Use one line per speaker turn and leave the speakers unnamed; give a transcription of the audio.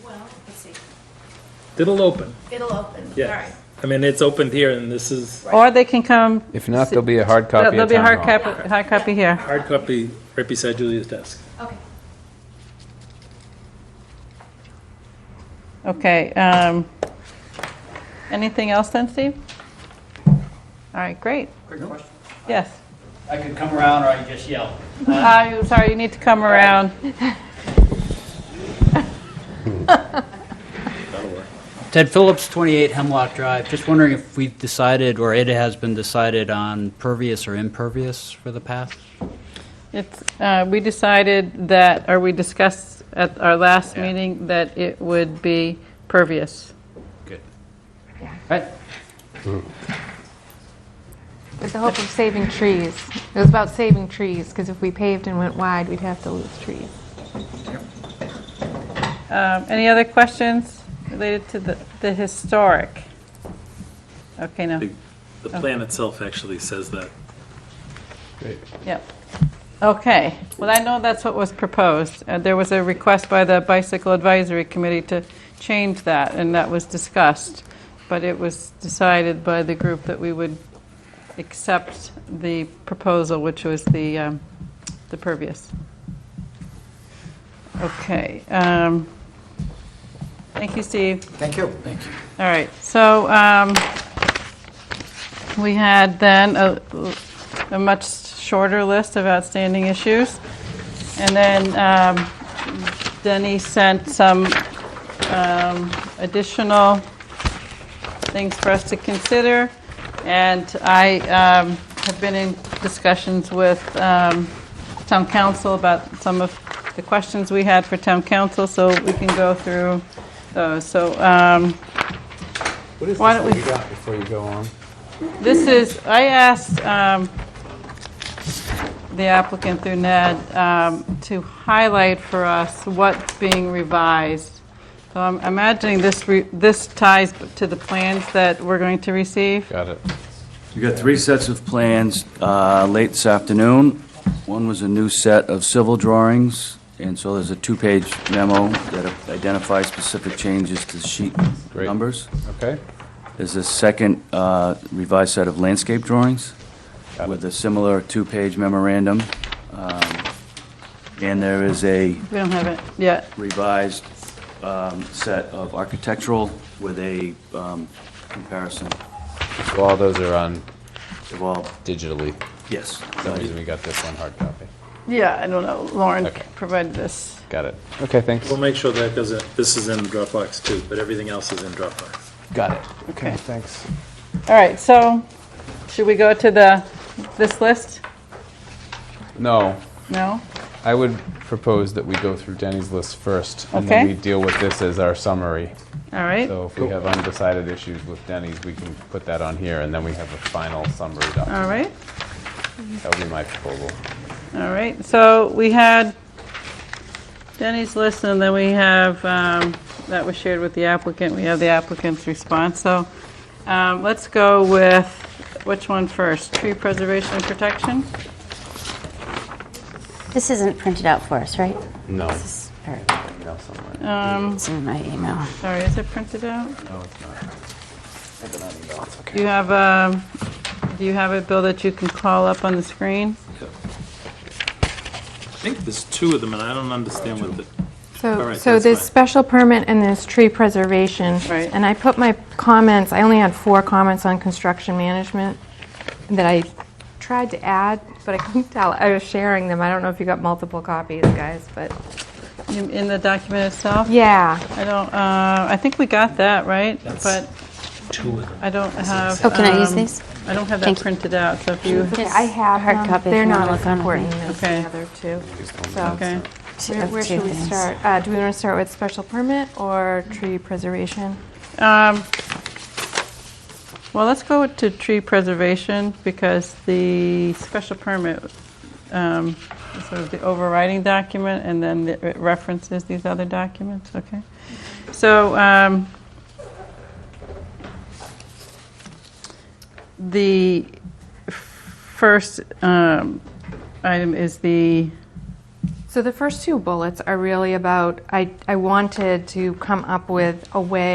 Let's see.
It'll open,
It'll open.
Yeah.
All right.
I mean, it's opened here, and this is
Right.
Or they can come,
If not, there'll be a hard copy
there'll
at
be a
Town
hard
Hall.
copy, hard copy here.
hard copy right beside Julia's desk.
Okay.
Okay. um, Anything else then, Steve? All right, great.
Quick question.
Yes.
I could come around or I could just yell.
I'm sorry, you need to come around.
Ted Phillips, 28 Hemlock Drive. Just wondering if we've decided, or it has been decided on pervious or impervious for the path?
It's, uh, we decided that, or we discussed at our last
Yeah.
meeting that it would be pervious.
Good. Right?
With the hope of saving trees. It was about saving trees, because if we paved and went wide, we'd have to lose trees.
Um, Any other questions related to the the historic? Okay, no,
The the plan itself actually says that.
yep. Okay, well, I know that's what was proposed. Uh, There was a request by the Bicycle Advisory Committee to change that, and that was discussed. But it was decided by the group that we would accept the proposal, which was the um, the pervious. Okay. um, Thank you, Steve.
Thank you. Thank you.
All right, so um, we had then a a much shorter list of outstanding issues. And then um, Denny sent some um, additional things for us to consider. And I um, have been in discussions with um, town council about some of the questions we had for town council, so we can go through those. So um,
What is this
Why don't
that
we-
you got before you go on?
This is, I asked um, the applicant through Ned um, to highlight for us what's being revised. So I'm imagining this, re- this ties to the plans that we're going to receive.
Got it.
You got three sets of plans uh, late this afternoon. One was a new set of civil drawings, and so there's a two-page memo that identifies specific changes to sheet
Great.
numbers.
Okay.
There's a second uh, revised set of landscape drawings with a similar two-page memorandum. Um, And there is a
We don't have it yet.
revised um, set of architectural with a um, comparison
So all those are on
of all,
digitally.
yes.
For some reason we got this one hard copy.
Yeah, I don't know. Lauren
Okay.
provided this.
Got it. Okay, thanks.
We'll make sure that doesn't, this is in Dropbox too, but everything else is in Dropbox.
Got it. Okay, thanks.
All right, so should we go to the, this list?
No,
No?
I would propose that we go through Denny's list first. And then
Okay.
we deal with this as our summary.
All right.
So if we have undecided issues with Denny's, we can put that on here and then we have a final summary
All
document.
right.
That would be my proposal.
All right, so we had Denny's list, and then we have, um, that was shared with the applicant, we have the applicant's response. So um, let's go with, which one first? Tree preservation and protection?
This isn't printed out for us, right?
No.
This is- or,
Email somewhere.
Um,
It's in my email.
Sorry, is it printed out?
No, it's not.
Do you have, um, do you have it, Bill, that you can call up on the screen?
I think there's two of them, and I don't understand what the, All
So,
right,
so
that's
there's
fine.
special permit and there's tree preservation.
Right.
And I put my comments, I only had four comments on construction management that I tried to add, but I couldn't tell. I was sharing them. I don't know if you got multiple copies, guys, but,
In in the document itself?
yeah.
I don't, uh, I think we got that, right? But I don't have.
Oh, can I use
um,
these?
I don't have that
Thank you.
printed out, so if you,
Okay, I have
hard
them.
copy if
They're
you wanna
not as
look on it.
important as the
Okay.
other two. So,
okay.
Two-
where
of
where
two
should we
things.
start? Uh, Do we want to start with special permit or tree preservation?
Um, Well, let's go to tree preservation, because the special permit um, is sort of the overriding document, and then the- it references these other documents, okay? So um, the first um, item is the
So the first two bullets are really about, I, I wanted to come up with a way